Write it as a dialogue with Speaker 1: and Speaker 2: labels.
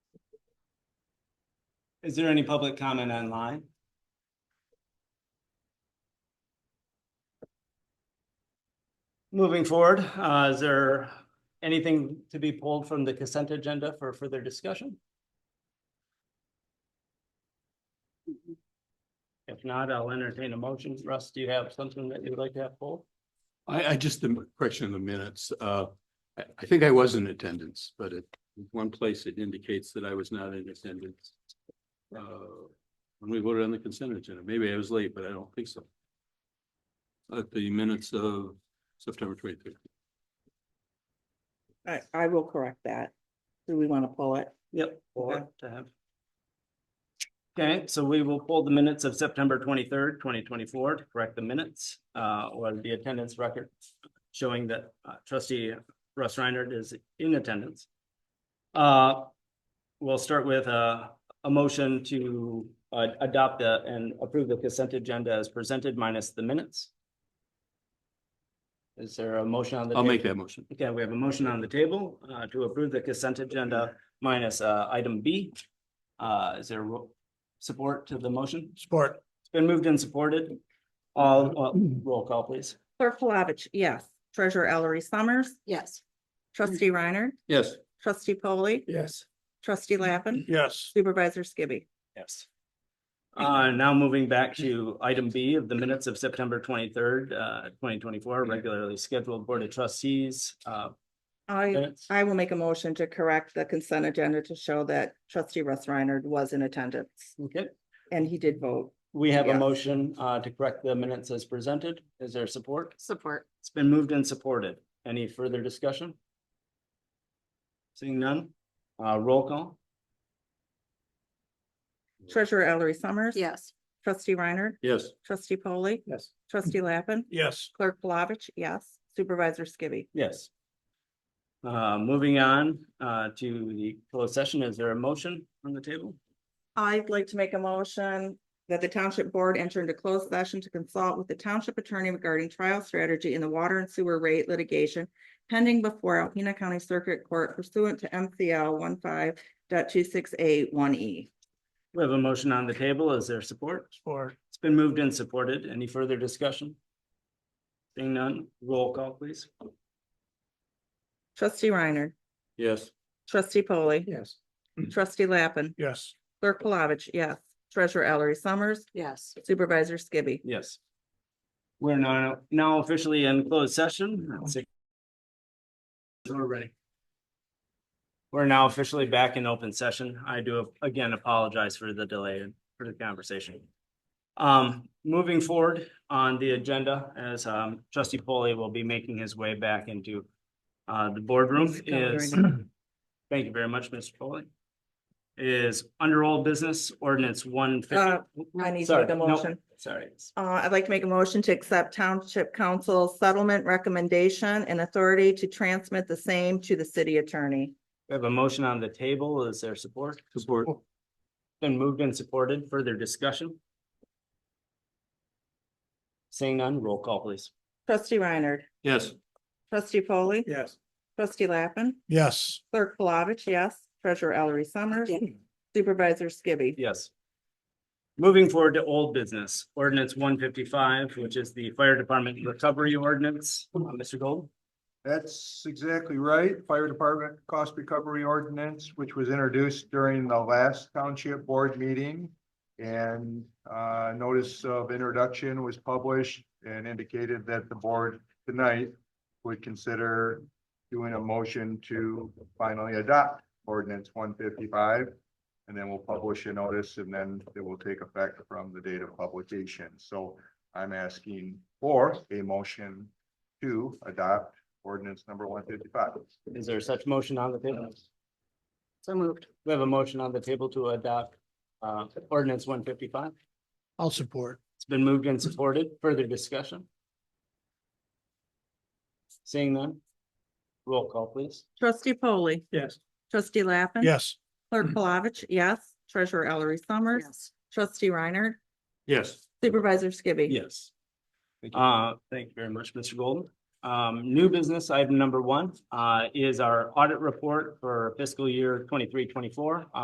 Speaker 1: Is there any public comment online? Moving forward, uh, is there anything to be pulled from the consent agenda for further discussion? If not, I'll entertain a motion. Russ, do you have something that you'd like to have pulled?
Speaker 2: I, I just, the question of the minutes, uh, I, I think I was in attendance, but at one place it indicates that I was not in attendance. Uh, when we voted on the consent agenda, maybe I was late, but I don't think so. At the minutes of September twenty-third.
Speaker 3: I, I will correct that. Do we want to pull it?
Speaker 1: Yep. Or to have. Okay, so we will pull the minutes of September twenty-third, twenty twenty-four to correct the minutes, uh, or the attendance record showing that uh, trustee Russ Reinert is in attendance. Uh, we'll start with a, a motion to uh, adopt the- and approve the consent agenda as presented minus the minutes. Is there a motion on the?
Speaker 2: I'll
Speaker 1: table?
Speaker 2: make that motion.
Speaker 1: Okay, we have a motion on the table uh, to approve the consent agenda minus uh, item B. Uh, Is there ro- support to the motion?
Speaker 4: Support.
Speaker 1: It's been moved and supported. All, all- roll call, please.
Speaker 3: Clerk Flavich, yes. Treasurer Ellery Summers,
Speaker 5: Yes.
Speaker 3: trustee Reiner,
Speaker 2: Yes,
Speaker 3: trustee Polly,
Speaker 4: Yes.
Speaker 3: trustee Lappin,
Speaker 4: Yes.
Speaker 3: supervisor Skibby.
Speaker 1: Yes. Uh, Now moving back to item B of the minutes of September twenty-third, uh, twenty twenty-four, regularly scheduled Board of Trustees. uh,
Speaker 3: I,
Speaker 1: minutes.
Speaker 3: I will make a motion to correct the consent agenda to show that trustee Russ Reiner was in attendance
Speaker 1: Okay,
Speaker 3: and he did vote.
Speaker 1: we have a
Speaker 3: Yes.
Speaker 1: motion uh, to correct the minutes as presented. Is there support?
Speaker 5: Support.
Speaker 1: It's been moved and supported. Any further discussion? Seeing none, uh, roll call?
Speaker 3: Treasurer Ellery Summers.
Speaker 5: Yes.
Speaker 3: Trustee Reiner,
Speaker 2: yes.
Speaker 3: trustee Polly,
Speaker 1: Yes.
Speaker 3: trustee Lappin,
Speaker 4: Yes.
Speaker 3: clerk Flavich, yes. Supervisor Skibby.
Speaker 1: Yes. Uh, moving on, uh, to the closed session, is there a motion on the table?
Speaker 3: I'd like to make a motion that the township board enter into closed session to consult with the township attorney regarding trial strategy in the water and sewer rate litigation pending before Alpena County Circuit Court pursuant to MCL one E.
Speaker 1: We have a motion on the table, is there support?
Speaker 4: Support.
Speaker 1: It's been moved and supported, any further discussion? Seeing none, roll call please.
Speaker 3: Trustee Reiner,
Speaker 2: Yes.
Speaker 3: trustee Polly,
Speaker 4: Yes.
Speaker 3: trustee Lappin,
Speaker 4: Yes.
Speaker 3: clerk Palovich, yes. Treasurer Ellery Summers,
Speaker 5: Yes.
Speaker 3: supervisor Skibby.
Speaker 1: Yes. We're now, now officially in closed session. Six-
Speaker 4: We're ready.
Speaker 1: We're now officially back in open session. I do again apologize for the delay and for the conversation. Um, moving forward on the agenda, as um trustee Polly will be making his way back into uh the boardroom is, thank you very much, Mr. Polly. Is under old business ordinance one
Speaker 3: Uh,
Speaker 1: fifty,
Speaker 3: I need to
Speaker 1: Sorry,
Speaker 3: make a
Speaker 1: no.
Speaker 3: motion.
Speaker 1: sorry.
Speaker 3: Uh, I'd like to make a motion to accept Township Council settlement recommendation and authority to transmit the same to the city attorney.
Speaker 1: We have a motion on the table. Is there support?
Speaker 2: Support.
Speaker 1: Been moved and supported. Further discussion? Seeing none, roll call please.
Speaker 3: Trustee Reiner,
Speaker 2: Yes.
Speaker 3: trustee Polly,
Speaker 4: Yes.
Speaker 3: trustee Lappin,
Speaker 4: Yes.
Speaker 3: clerk Palovich, yes, treasurer Ellery Summers, supervisor Skibby.
Speaker 1: Yes. Moving forward to old business, ordinance one fifty-five, which is the fire department recovery ordinance. Uh, Mr. Gold?
Speaker 6: That's exactly right. Fire Department Cost Recovery Ordinance, which was introduced during the last township board meeting. And uh, notice of introduction was published and indicated that the board tonight would consider doing a motion to finally adopt ordinance one fifty-five. And then we'll publish a notice and then it will take effect from the date of publication. So I'm asking for a motion to adopt ordinance number one fifty-five.
Speaker 1: Is there such motion on the table?
Speaker 5: So moved.
Speaker 1: We have a motion on the table to adopt uh ordinance one fifty-five.
Speaker 4: I'll support.
Speaker 1: It's been moved and supported. Further discussion? Seeing none? Roll call please.
Speaker 3: Trustee Polly,
Speaker 4: Yes.
Speaker 3: trustee Lappin.
Speaker 4: Yes.
Speaker 3: Clerk Palovich, yes, treasurer Ellery Summers,
Speaker 5: Yes.
Speaker 3: trustee Reiner,
Speaker 2: Yes.
Speaker 3: supervisor Skibby.
Speaker 1: Yes. Uh, thank you very much, Mr. Golden. Um, new business item number one, uh, is our audit report for fiscal year twenty-three, twenty-four.